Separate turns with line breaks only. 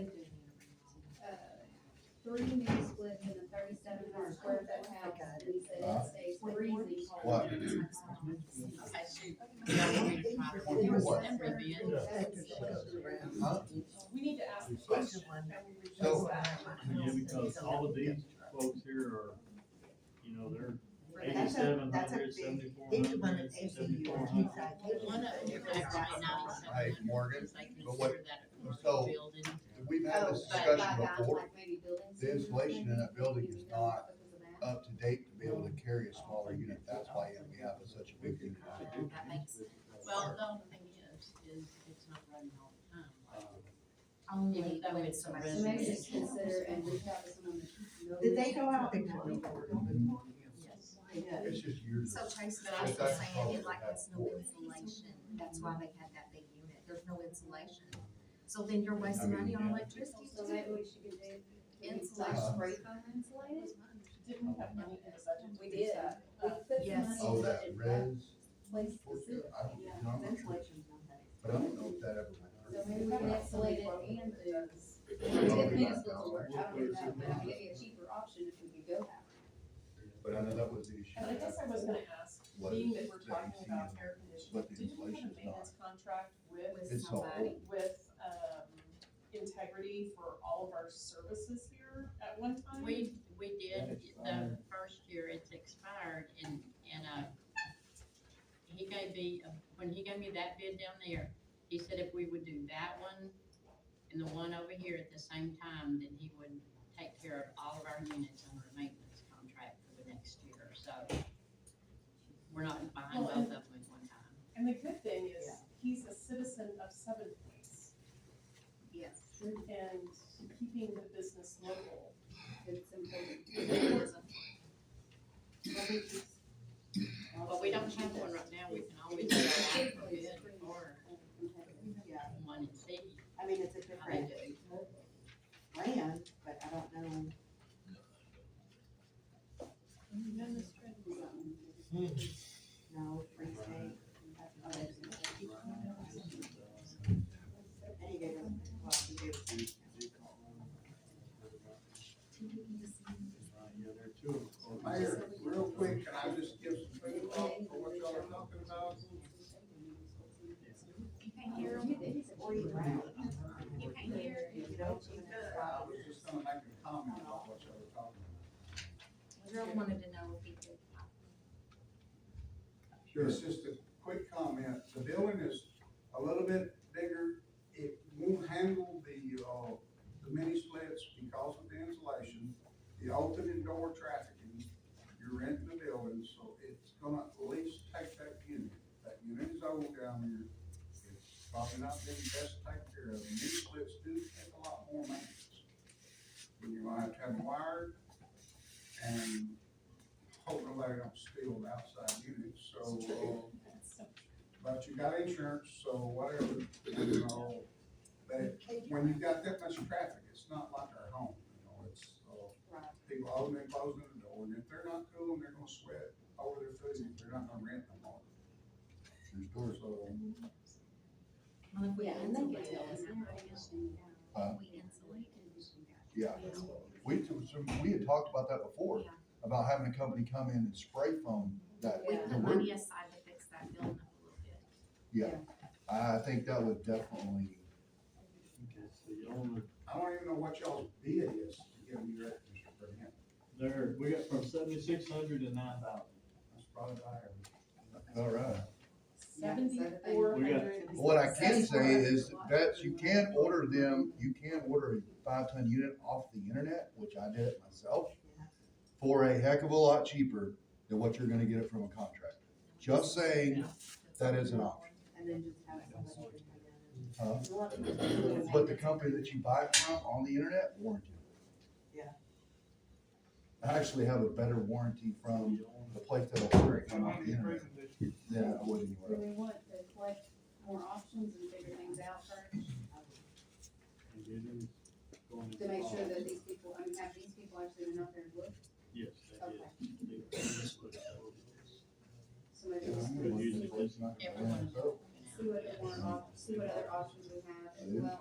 uh, three new splits in a thirty-seven hundred square foot house, and he said it stays freezing cold.
What?
Okay, shoot. It was September then.
We need to ask.
So-
Yeah, because all of these folks here are, you know, they're
That's a-
eighty-seven
that's a
hundred,
big-
seventy-four
Each one
hundred,
is ACU
seventy-four
or
hundred.
One of them, I tried ninety-seven
Hey,
hundred,
Morgan,
because I
but what-
consider that a commercial
so-
building.
we've had this discussion before, the insulation in that building is not up to date to be able to carry a smaller unit, that's why we have such a big unit.
That makes, well, the only thing is, is it's not running all the time. Even though it's a
So maybe
residence.
just consider and reach out to someone that. knows.
Did they go out?
Yes.
It's just years.
So
of-
Tracy, but I was just saying, it like has no insulation, that's why they had that big unit, there's no insulation. So then you're wasting money on electricity
So
too.
maybe we should get them.
Uh-huh.
Insulation.
Spray foam insulated?
Didn't we have money in the budget?
We did. We put the
Yes.
money
Oh,
in
that
budget for
res,
place
portion,
specific.
I don't, you know, I'm not sure, but I don't know if that ever
So
went.
maybe we can insulate it and do.
Probably
Tiffany's
not
will work, I don't know, but I'll give you a cheaper option if we could go that way.
But I know that was the issue.
And I guess I was gonna ask,
Was
being that we're
the
talking
AC
about
unit,
air
but the
conditioning, did you have
insulation
a
is
maintenance contract with,
It's so old.
with, um, integrity for all of our services here at one time?
We, we did, the first year it's expired and, and, uh, he gave me, uh, when he gave me that bid down there, he said if we would do that one and the one over here at the same time, then he would take care of all of our units under a maintenance contract for the next year, so. We're not buying both of them at one time.
And the good thing is,
Yeah.
he's a citizen of Seven Points
Yes.
and keeping the business local.
It's important.
But we don't have one right now, we can always do that for bid or
Yeah,
one and see
I mean, it's a
how they
different
do.
brand, but I don't know. No, free state. that's what it is. And he gave us, well, he gave us.
Mayor, real quick, can I just give some food off for what y'all are talking about?
You can't hear, you can't hear.
You know, she
I was just gonna make a comment about what y'all were talking
Gerald wanted to know if he could.
about. It's just a quick comment. The building is a little bit bigger. It won't handle the, uh, the mini splits because of the insulation, the open and door trafficking. You're renting the building, so it's gonna at least take that unit. That unit is old down here. It's probably not been best taken care of. Mini splits do take a lot more maintenance. When you might have to have them wired and hope nobody don't steal the outside units, so, uh, but you got insurance, so whatever, you know. But when you've got that much traffic, it's not like our home, you know, it's, uh, people opening and closing the door, and if they're not cool, they're gonna sweat over their food, they're not gonna rent no more.
There's doors.
So,
Well, if we
Yeah, and they can tell
insulate
us.
it,
Uh,
we insulate
Yeah, we, took some- we had talked about that before, about having a company come in and spray foam that,
We
Yeah.
put money aside to fix that building up a little bit.
yeah. I think that would definitely,
It's the only,
I don't even know what y'all's bid is to give you that, Mr. Burnett,
there, we got from seventy-six hundred to nine thousand.
that's probably about it.
all right.
Seventy-four
We got-
hundred.
What I can say is that you can order them, you can order a five ton unit off the internet, which I did it myself, for a heck of a lot cheaper than what you're gonna get it from a contractor. Just saying, that is an option.
And then just have somebody. come in and-
huh? But the company that you buy it from on the internet warranty.
Yeah.
I actually have a better warranty from the place that I ordered from on the internet than I would anywhere
Do
else.
we want to collect more options and figure things out first, to make sure that these people, I mean, have these people actually been out there and looked?
Yes, that
Okay.
is.
So maybe
Yeah,
just
I'm gonna use
see
it, it's not gonna
Everyone
last.
is looking out.
what other, more op- see what other options we have as
Yeah.
well.